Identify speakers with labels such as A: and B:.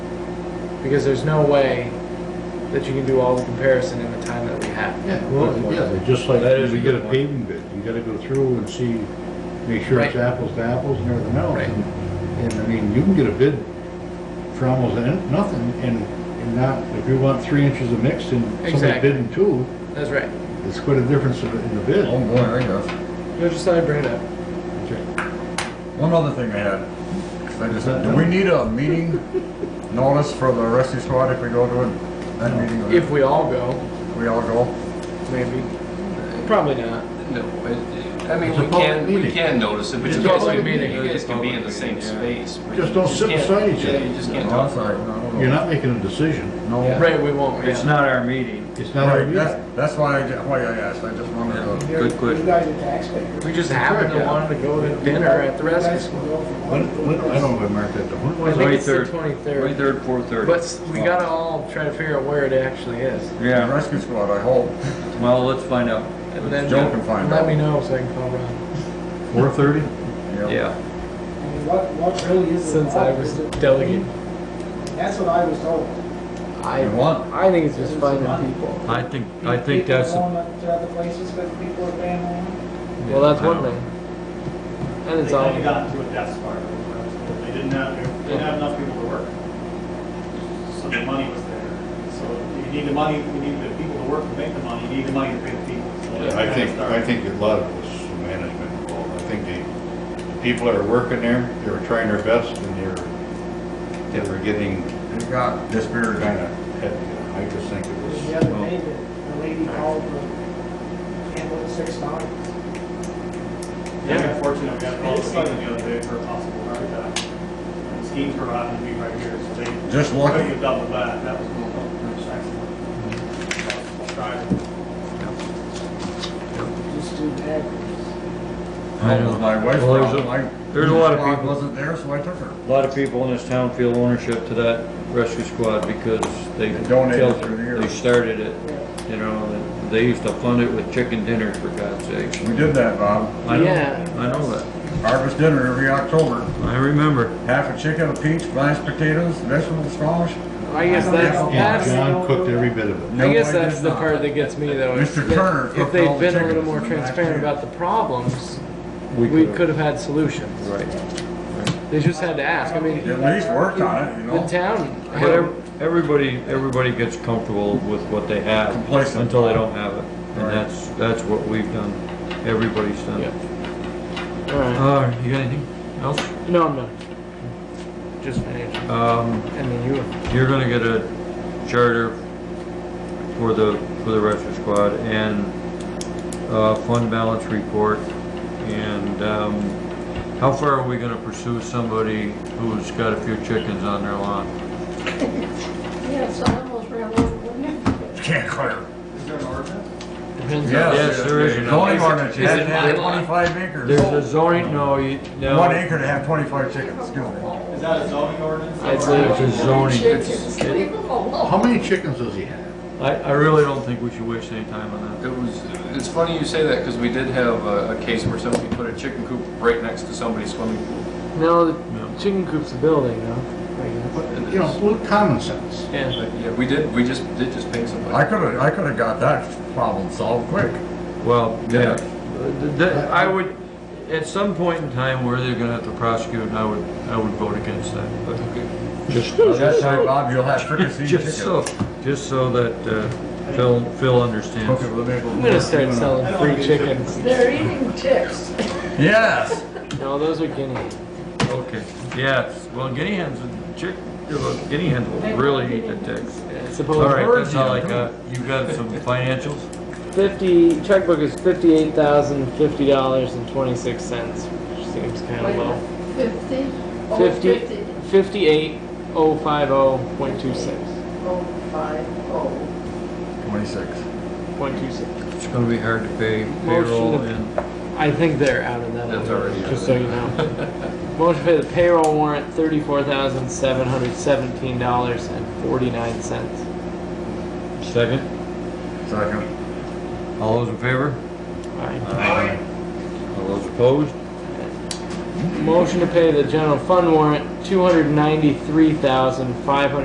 A: because there's no way that you can do all the comparison in the time that we have.
B: Yeah,
C: Well,
B: yeah.
C: yeah, just like
D: That is
C: when we
D: a
C: get a
D: good point.
C: paving bid, you gotta go through and see, make sure it's
A: Right.
C: apples to apples and everything else.
A: Right.
C: And, I mean, you can get a bid for almost an- nothing, and, and not, if you want three inches of mix and somebody
A: Exactly.
C: bidding two,
A: That's right.
C: it's quite a difference in the- in the bid.
B: Oh, boy, there you go.
A: No, just thought I'd bring it up.
B: One other thing I had, 'cause I just, do we need a meeting notice for the rescue squad if we go to it? That meeting,
A: If
B: if
A: we all go,
B: we all go?
A: maybe. Probably not.
E: No, it- I mean,
C: It's a
E: we
C: public
E: can, we
C: meeting.
E: can notice it, but
A: It's
E: you
A: a
E: guys
A: public
E: can,
A: meeting.
E: you guys can be in the
A: It's a
E: same
A: public meeting,
E: space. but
C: Just
E: you
C: don't sit
E: can't-
C: beside each
E: Yeah,
C: other.
E: you just
B: No,
E: can't
B: I'm
E: talk.
B: sorry, no,
C: You're
B: no.
C: not making a decision,
B: No,
A: Right, we won't,
D: It's
A: yeah.
D: not our meeting.
C: it's not our
B: right,
C: meeting.
B: that's, that's why I, ju- why I asked, I just wanted to,
F: Good question.
G: You guys are taxpayers.
A: We just happened to
C: Yeah.
A: want to go to dinner at the
G: You
A: rescue
G: guys can
A: squad.
G: go
C: When,
G: from one to
C: when,
G: the
C: I don't know if I marked that, down. when
A: I
C: was
A: think
C: it?
A: it's the
D: 23rd.
A: twenty-third.
D: Twenty-third, four-thirty.
A: But s- we gotta all try to figure out where it actually is.
B: the
D: Yeah,
B: rescue squad, I hope.
D: well, let's find out.
A: And then
B: Joe
E: uh,
B: can find
A: let
B: out.
A: me know so I can call Ron.
C: Four thirty?
G: I
D: Yeah,
G: mean, what, what really is the
A: Since I
G: law
A: was
G: is that-
A: delegate,
G: That's what I was told.
A: I,
B: You want,
A: I think it's just finding people.
D: I think, I think
G: People
D: that's,
G: going to other places, but people are paying more.
A: Well, that's
D: I
A: one
D: know.
A: thing. And
H: They
A: it's
H: kind
A: all.
H: of got into a death spiral. They didn't have, they didn't have enough people to work. So the money was there. So if you need the money, you need the people to work to make the money, you need the money to pay the people. So that's
C: I think,
H: kinda
C: I
H: started.
C: think a lot of it was some management involved. I think they, the people that were working there, they were trying their best and they were, they were getting
B: it got dispirited.
C: kind of heavy. I just think it was.
G: The other day, the the lady called, the handled six dollars.
H: Yeah, unfortunately, we had a call scheme the other day for a possible heart attack. And the schemes were out to be right here, so they.
B: Just lucky.
H: Couldn't have doubled that, that was a little, excellent. Try.
G: just do that.
B: I know. My wife's
D: Well, there's a-
B: problem, I.
D: there's a lot of people-
B: Wasn't there, so I took her.
D: a lot of people in this town feel ownership to that rescue squad because they.
B: They donated
D: felt
B: through the years.
D: They started it, you know, and they used to fund it with chicken dinners for God's sakes.
B: We did that, Bob.
D: I know-
A: Yeah.
D: I know that,
B: Harvest dinner every October,
D: I remember.
B: half a chicken, a peach, mashed potatoes, vegetable squash.
A: I guess that's,
G: Yeah.
C: And
A: that's,
C: John cooked every bit of it.
A: I
B: No,
A: guess
B: did
A: that's the
B: not.
A: part that gets me though. is
B: Mr.
A: that
B: Turner
A: If
B: cooked all
A: they'd
B: the
A: been a little
B: chickens
A: more
B: in the back
A: transparent
B: room.
A: about the problems, we
D: could've-
A: could have had solutions.
D: Right.
A: They just had to ask. I mean,
B: At least worked on it, you
A: the
B: know?
A: town.
D: But ev- everybody, everybody gets comfortable with what they have.
B: Complacent.
D: Until they don't have it.
B: Right.
D: And that's, that's what we've done. Everybody's done. it.
A: All right.
D: Uh, you got anything else?
A: No, I'm not. Just financial.
D: Um,
A: I mean, you.
D: you're gonna get a charter for the, for the rescue squad and, uh, fund balance report. And, um, how far are we gonna pursue somebody who's got a few chickens on their lawn?
I: Yeah, it's almost ran over, wouldn't it?
B: Can't clear.
H: Is there an ordinance?
A: Depends on.
D: Yes, there is an
B: Zoning
D: ordinance.
B: ordinance, you
A: Is
B: have
A: it
B: to have
A: my line?
B: twenty-five acres.
D: There's a zoning, no, you, no.
B: One acre to have twenty-five chickens, excuse me.
H: Is that a zoning ordinance?
A: I'd say
D: It's a zoning.
I: Chickens,
D: It-
I: leave them alone.
C: How many chickens does he have?
D: I, I really don't think we should waste any time on that.
E: It was, it's funny you say that, because we did have a, a case where somebody put a chicken coop right next to somebody's swimming pool.
A: No, the chicken coop's a building, though.
C: But, You know, a little common sense.
A: Yeah.
E: But, Yeah, we did, we just, did just pay somebody.
B: I could've, I could've got that problem solved quick.
D: Well, yeah. Th- th- I would, at some point in time, where they're gonna have to prosecute, and I would, I would vote against that, but just,
B: That time, Bob, you'll have fricasseed
D: just so,
B: chickens.
D: just so that, uh, Phil, Phil understands.
B: Cook it with
A: I'm gonna
B: maple.
A: start selling free chickens.
I: They're eating ticks.
B: Yes,
A: No, those are guinea.
D: Okay, yes, well, guinea hens, would- chick, uh, guinea hens will really eat the ticks. All
A: Suppose
D: right, that's all I got. You got some financials?
A: fifty checkbook is fifty-eight thousand fifty dollars and twenty-six cents, which seems kind of low.
I: Fifty? Oh,
A: Fifty, fifty-eight oh five oh point two six,
I: Oh, five, oh.
B: twenty-six.
A: point two six.
D: It's gonna be hard to pay payroll and,
A: I think they're out of that.
E: That's
A: already.
E: already out.
A: Just so you know. Motion to pay the payroll warrant thirty-four thousand seven hundred seventeen dollars and forty-nine cents.
D: second,
B: Second.
D: all those in favor?
B: Uh-huh.
A: Alright.
D: Aye. All those opposed?
A: Motion to pay the general fund warrant two hundred ninety-three thousand five hundred